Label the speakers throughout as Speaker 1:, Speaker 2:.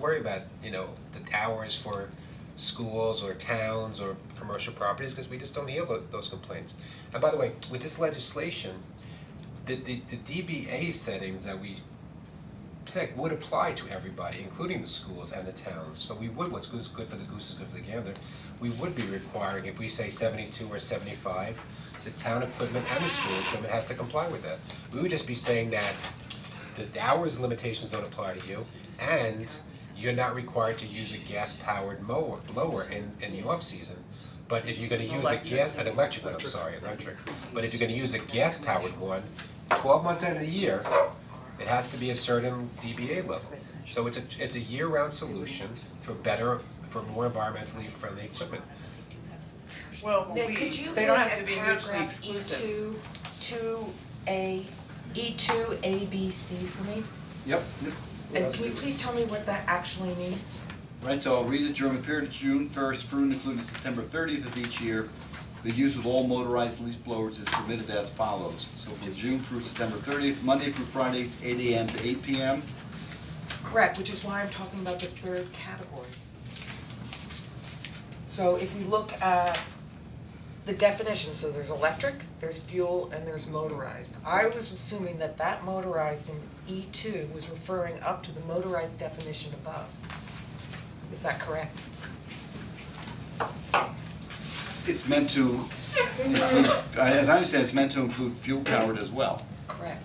Speaker 1: worry about, you know, the hours for schools or towns or commercial properties, cause we just don't hear tho- those complaints. And by the way, with this legislation, the the the DBA settings that we pick would apply to everybody, including the schools and the towns. So we would, what's good is good for the goose is good for the gander, we would be requiring, if we say seventy-two or seventy-five, the town equipment and the school equipment has to comply with that. We would just be saying that the- the hours and limitations don't apply to you, and you're not required to use a gas-powered mower, blower in in the off-season. But if you're gonna use a gas, an electric one, I'm sorry, electric, but if you're gonna use a gas-powered one, twelve months out of the year, it has to be a certain DBA level. So it's a, it's a year-round solution for better, for more environmentally friendly equipment.
Speaker 2: Well,
Speaker 3: Then
Speaker 2: we,
Speaker 3: could you
Speaker 2: they
Speaker 3: look
Speaker 2: don't have to
Speaker 3: at
Speaker 2: be mutually
Speaker 3: paragraph E
Speaker 2: exclusive.
Speaker 3: two, two A, E two, A, B, C for me?
Speaker 4: Yep,
Speaker 3: And can you please tell me what that actually means?
Speaker 4: right, so I'll read it during the period of June first through and including September thirtieth of each year. The use of all motorized leaf blowers is permitted as follows. So from June through September thirtieth, Monday through Fridays, eight AM to eight PM.
Speaker 3: Correct, which is why I'm talking about the third category. So if we look at the definition, so there's electric, there's fuel, and there's motorized. I was assuming that that motorized in E two was referring up to the motorized definition above. Is that correct?
Speaker 4: It's meant to include, uh, as I understand, it's meant to include fuel powered as well,
Speaker 3: Correct,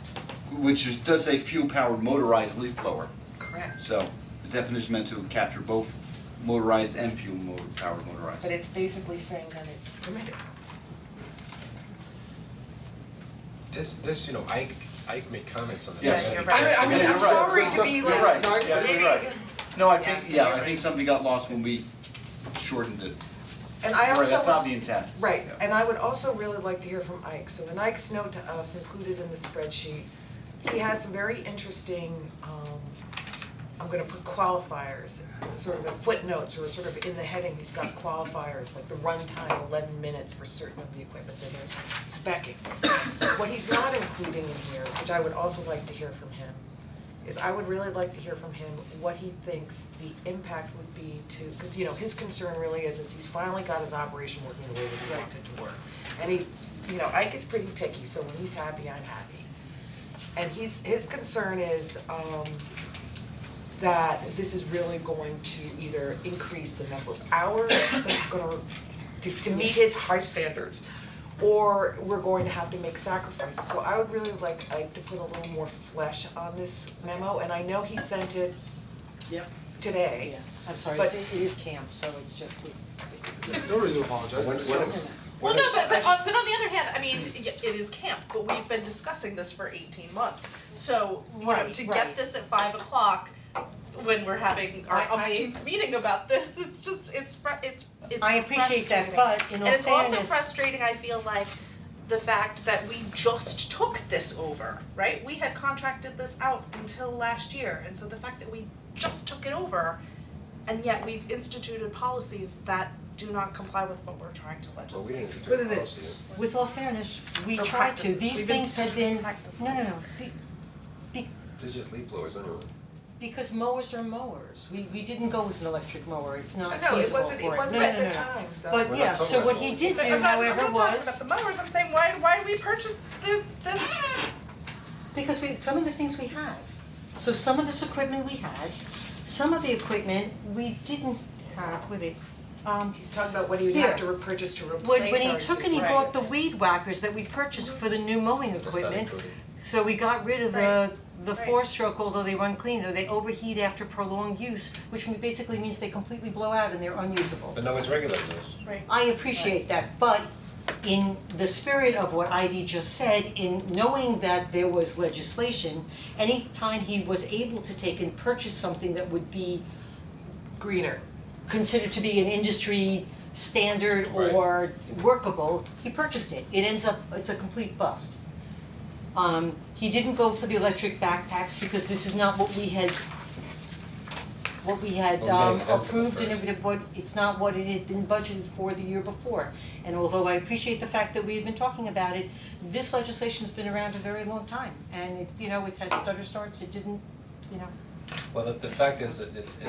Speaker 4: which is, does say fuel powered motorized leaf blower.
Speaker 3: correct.
Speaker 4: So the definition is meant to capture both motorized and fuel motor, powered motorized.
Speaker 3: But it's basically saying that it's permitted.
Speaker 1: This, this, you know, Ike, Ike made comments on this.
Speaker 4: Yeah,
Speaker 1: I
Speaker 2: you're
Speaker 1: gotta be
Speaker 2: right.
Speaker 3: I mean,
Speaker 1: careful.
Speaker 3: I'm sorry to be like.
Speaker 4: You're right, yeah, you're
Speaker 3: maybe-
Speaker 4: right. No, I think,
Speaker 2: Yeah,
Speaker 4: yeah, I think something got lost when we shortened it.
Speaker 3: And I also.
Speaker 4: Right, that's not the intent.
Speaker 3: Right,
Speaker 4: Yeah.
Speaker 3: and I would also really like to hear from Ike, so in Ike's note to us included in the spreadsheet, he has some very interesting, um, I'm gonna put qualifiers, sort of in footnotes or sort of in the heading, he's got qualifiers, like the runtime, eleven minutes for certain of the equipment that is specing. What he's not including in here, which I would also like to hear from him, is I would really like to hear from him what he thinks the impact would be to, because you know, his concern really is, is he's finally got his operation working the way that he wants it to work. And he, you know, Ike is pretty picky, so when he's happy, I'm happy. And he's, his concern is, um, that this is really going to either increase the number of hours that's gonna, to, to meet his high standards, or we're going to have to make sacrifices. So I would really like Ike to put a little more flesh on this memo, and I know he sent it
Speaker 5: Yep.
Speaker 3: today.
Speaker 5: I'm sorry,
Speaker 3: But-
Speaker 5: it's, it is camp, so it's just, it's,
Speaker 6: No reason to apologize.
Speaker 1: When- when- when-
Speaker 2: Well, no, but but on, but on the other hand, I mean, y- it is camp, but we've been discussing this for eighteen months. So, you know,
Speaker 5: Right,
Speaker 2: to
Speaker 5: right.
Speaker 2: get this at five o'clock, when we're having our
Speaker 5: I- I-
Speaker 2: umpteenth meeting about this, it's just, it's fr- it's it's
Speaker 5: I appreciate
Speaker 2: frustrating.
Speaker 5: that, but in all
Speaker 2: And it's also
Speaker 5: fairness-
Speaker 2: frustrating, I feel like, the fact that we just took this over, right? We had contracted this out until last year, and so the fact that we just took it over and yet we've instituted policies that do not comply with what we're trying to legislate.
Speaker 1: Well, we didn't
Speaker 5: Wait,
Speaker 1: do
Speaker 5: wait,
Speaker 1: it
Speaker 5: wait.
Speaker 1: policy.
Speaker 5: with all fairness, we
Speaker 2: Or
Speaker 5: tried to,
Speaker 2: practices.
Speaker 5: these
Speaker 2: We've been
Speaker 5: things have been,
Speaker 2: practices.
Speaker 5: no, no, no, the, be,
Speaker 1: It's just leaf blowers, anyway.
Speaker 5: because mowers are mowers, we, we didn't go with an electric mower, it's not
Speaker 3: No,
Speaker 5: feasible
Speaker 3: it
Speaker 5: for
Speaker 3: wasn't,
Speaker 5: it.
Speaker 3: it
Speaker 5: No,
Speaker 3: wasn't
Speaker 5: no,
Speaker 3: at
Speaker 5: no,
Speaker 3: the
Speaker 5: no.
Speaker 3: time, so.
Speaker 5: But
Speaker 1: We're
Speaker 5: yeah,
Speaker 1: not talking
Speaker 5: so
Speaker 1: about
Speaker 5: what
Speaker 1: that.
Speaker 5: he did do,
Speaker 2: I'm not- I'm
Speaker 5: however,
Speaker 2: not talking about
Speaker 5: was,
Speaker 2: the mowers, I'm saying, why, why did we purchase this, this?
Speaker 5: because we, some of the things we had. So some of this equipment we had, some of the equipment we didn't have, with it, um,
Speaker 3: He's talking about what he would have to
Speaker 5: Here.
Speaker 3: repurchase to replace our
Speaker 5: When when he took and he
Speaker 3: existing-
Speaker 5: bought the weed whackers that we purchased for the new mowing
Speaker 1: not
Speaker 5: equipment,
Speaker 1: included.
Speaker 5: so we got rid of the
Speaker 2: Right.
Speaker 5: the
Speaker 2: Right.
Speaker 5: four stroke, although they run cleaner, they overheat after prolonged use, which m- basically means they completely blow out and they're unusable.
Speaker 1: But no one's regulating this.
Speaker 2: Right.
Speaker 5: I appreciate that, but in the spirit of what Ivy just said, in knowing that there was legislation, anytime he was able to take and purchase something that would be
Speaker 3: Greener.
Speaker 5: considered to be an industry standard
Speaker 1: Right.
Speaker 5: or workable, he purchased it. It ends up, it's a complete bust. Um, he didn't go for the electric backpacks because this is not what we had, what we had
Speaker 1: Well, we
Speaker 5: um
Speaker 1: got exempt from the
Speaker 5: approved and
Speaker 1: first.
Speaker 5: it would, it's not what it had been budgeted for the year before. And although I appreciate the fact that we had been talking about it, this legislation's been around a very long time. And it, you know, it's had stutter starts, it didn't, you know.
Speaker 1: Well, the, the fact is that it's, it's